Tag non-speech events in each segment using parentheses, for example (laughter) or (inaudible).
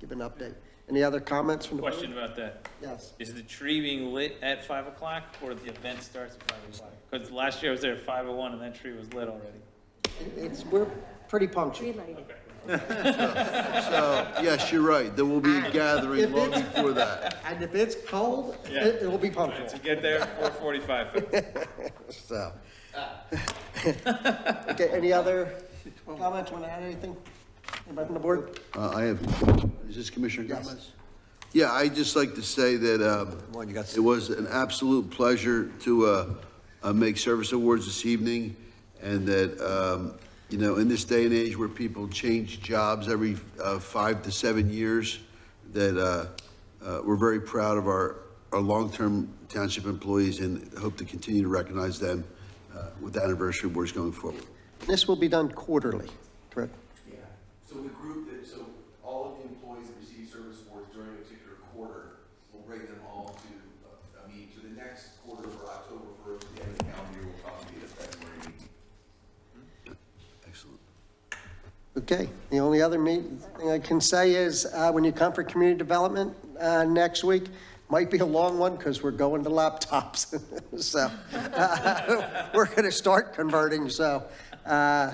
give an update. Any other comments from the board? Question about that. Yes. Is the tree being lit at five o'clock or the event starts at five o'clock? Because last year I was there at five oh one and that tree was lit already. It's, we're pretty punctual. So, Oh, yes, you're right, there will be a If gathering long it's- before that. And if it's cold, Yeah. it it will be punctual. To get there at four forty-five. So, Okay, any other comments, want to add anything? Anybody from the board? uh, I have, is this Commissioner Yes. Gomez? Yeah, I'd just like to say that um, it was an absolute pleasure to uh, uh, make service awards this evening, and that, um, you know, in this day and age where people change jobs every uh, five to seven years, that uh, uh, we're very proud of our, our long-term township employees and hope to continue to recognize them uh, with the anniversary awards going forward. This will be done quarterly, correct? Yeah, so the group that, so all of the employees that receive service awards during a particular quarter, will bring them all to, uh, I mean, to the next quarter for October first, the end of the calendar year will probably be the February meeting. Excellent. Okay, the only other meet- thing I can say is, uh, when you come for community development uh, next week, might be a long one because we're going to laptops. (laughs) So, uh, (laughs) we're going to start converting, so uh,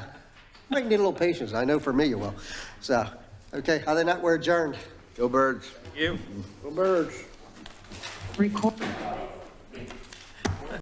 might need a little patience. I know for me you will. So, okay, other than that, we're adjourned. Go Birds. You? Go Birds. Record.